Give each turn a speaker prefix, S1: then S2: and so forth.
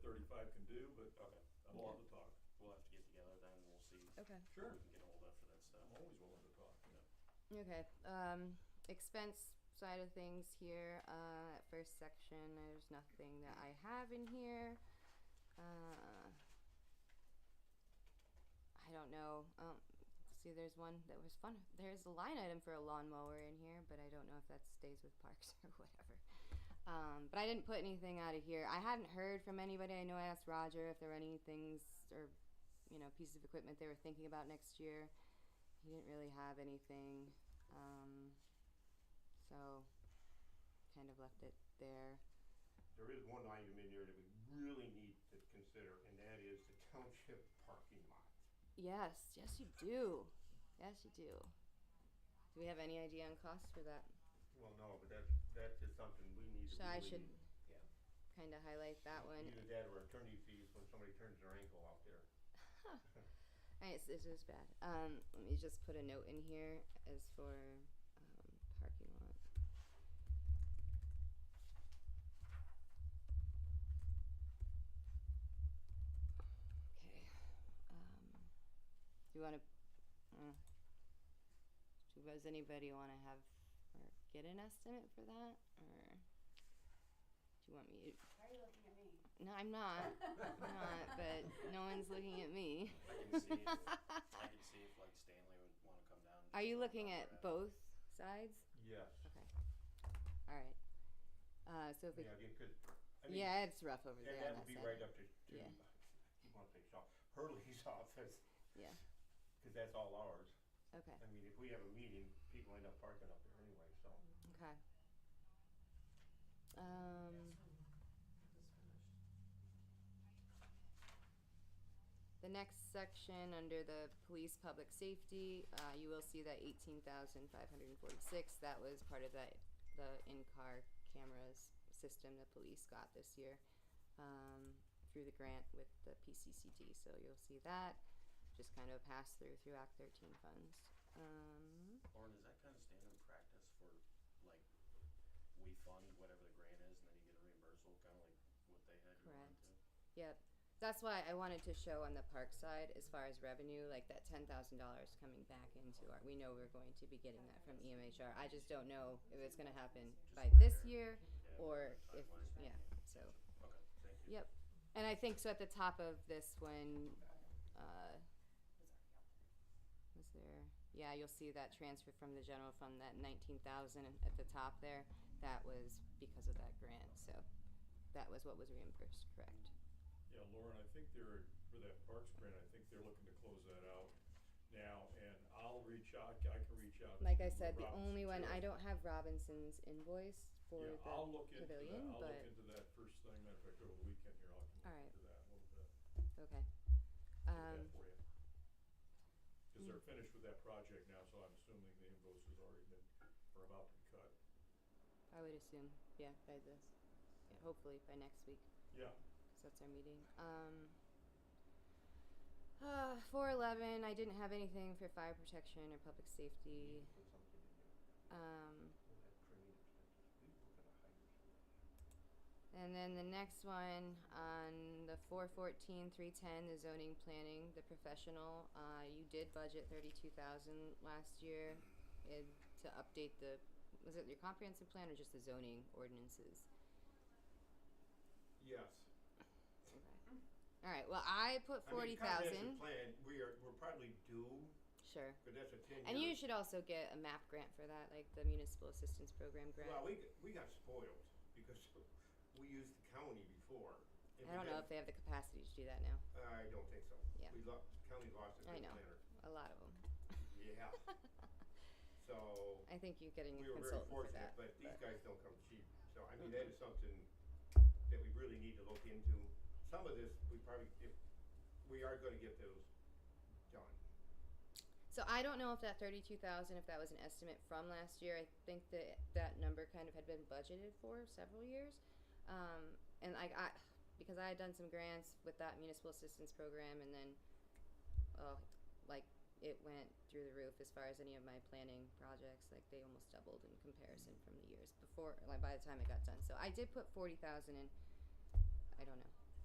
S1: I'm willing
S2: Okay.
S1: to talk.
S3: We'll have to get together then, we'll see who
S2: Okay.
S1: Sure.
S3: we can get ahold of for that stuff.
S1: I'm always willing to talk.
S3: Yeah.
S2: Okay. Um, expense side of things here. Uh, first section, there's nothing that I have in here. Uh, I don't know. Um, see, there's one that was fun. There's a line item for a lawnmower in here, but I don't know if that stays with parks or whatever. Um, but I didn't put anything out of here. I hadn't heard from anybody. I know I asked Roger if there were any things or, you know, pieces of equipment they were thinking about next year. He didn't really have anything, um, so kind of left it there.
S4: There is one item in there that we really need to consider, and that is the township parking lot.
S2: Yes, yes, you do. Yes, you do. Do we have any idea on cost for that?
S4: Well, no, but that's, that's just something we need to
S2: So I
S4: really-
S2: should
S4: Yeah.
S2: kind of highlight that
S4: Either
S2: one.
S4: that or attorney fees when somebody turns their ankle out there.
S2: Alright, so this is bad. Um, let me just put a note in here as for um, parking lot. Okay. Um, do you want to? Uh, do- does anybody want to have or get an estimate for that, or do you want me?
S5: Why are you looking at me?
S2: To, no, I'm not. I'm not. But no one's looking at me.
S3: I can see, if- I can see if like Stanley would wanna come down. and
S2: Are
S3: just
S2: you
S3: look
S2: looking
S3: over
S2: at both sides?
S4: Yes.
S2: Okay. All right. Uh, so if we,
S4: Yeah,
S2: yeah,
S4: again, 'cause, I mean,
S2: it's rough over
S4: that-
S2: there.
S4: that
S2: on
S4: would be
S2: side.
S4: right up to, to,
S2: Yeah.
S4: I want to say Shaw, Hurley's office,
S2: Yeah.
S4: because that's all ours.
S2: Okay.
S4: I mean, if we have a meeting, people end up parking up there anyway, so.
S2: Okay. Um, the next section under the police public safety, uh, you will see that eighteen thousand five hundred and forty-six. That was part of that the in-car cameras system the police got this year um, through the grant with the PCCD. So you'll see that just kind of pass through through Act thirteen funds. Um,
S3: Lauren, is that kind of standard practice for like, we fund whatever the grant is and then you get a reimbursement, kinda like what they had you on
S2: Correct.
S3: to?
S2: Yep. That's why I wanted to show on the park side, as far as revenue, like that ten thousand dollars coming back into our, we know we're going to be getting that from E EMHR. I just don't know if it's gonna happen by this year,
S3: Yeah,
S2: or
S3: that's
S2: if,
S3: fine.
S2: yeah, so,
S3: Okay, thank you.
S2: yep. And I think so at the top of this one, uh, was there, yeah, you'll see that transfer from the general fund, that nineteen thousand at the top there. That was because of that grant, so that was what was reimbursed, correct?
S1: Yeah, Lauren, I think they're, for that Parks grant, I think they're looking to close that out now, and I'll reach out, I can reach out.
S2: Like
S1: to
S2: I said, the
S1: Robinson,
S2: only one,
S1: too.
S2: I don't have Robinson's invoice for
S1: Yeah,
S2: the
S1: I'll look into that,
S2: pavilion,
S1: I'll look
S2: but,
S1: into that first thing, matter of fact, over the weekend here, I
S2: All
S1: can
S2: right.
S1: look into that a little bit.
S2: okay.
S1: Get
S2: Um,
S1: that for you. Cause they're finished with that project now, so I'm assuming the invoice has already been, or about to be cut.
S2: I would assume, yeah, by this, yeah, hopefully by next week,
S1: Yeah,
S2: cause that's our meeting. Um, uh, four eleven, I didn't have anything for fire protection or public safety,
S4: Put something in there.
S1: Mm-hmm.
S2: um.
S4: Well, that training expenses, we were gonna hire somebody.
S2: And then the next one on the four fourteen, three ten, the zoning planning, the professional, uh, you did budget thirty-two thousand last year in, to update the, was it your comprehensive plan or just the zoning ordinances?
S4: Yes.
S2: Okay. Alright, well, I put
S4: I
S2: forty
S4: mean, comprehensive
S2: thousand,
S4: Plan, we are, we're probably due,
S2: sure.
S4: but that's a ten-year.
S2: And you should also get a MAP grant for that, like the municipal assistance program
S4: Well,
S2: grant.
S4: we, g- we got spoiled because we used the county before.
S2: I
S4: and we
S2: don't know if
S4: didn't-
S2: they have the capacity to do that now,
S4: I don't think so.
S2: Yeah.
S4: We lost, county lost a
S2: I
S4: good
S2: know.
S4: planner.
S2: a lot of them.
S4: Yeah. So,
S2: I think you're getting
S4: we
S2: a
S4: were very
S2: consultant for that.
S4: fortunate,
S2: Mm-hmm.
S4: but these
S2: but-
S4: guys don't come cheap. So, I mean, that is something that we really need to look into. Some of this, we probably, if, we are gonna get those done.
S2: So I don't know if that thirty-two thousand, if that was an estimate from last year. I think that that number kind of had been budgeted for several years, um, and I, I because I had done some grants with that municipal assistance program, and then, oh, like it went through the roof as far as any of my planning projects. Like they almost doubled in comparison from the years before. Like by the time it got done, so I did put forty thousand in. I don't know.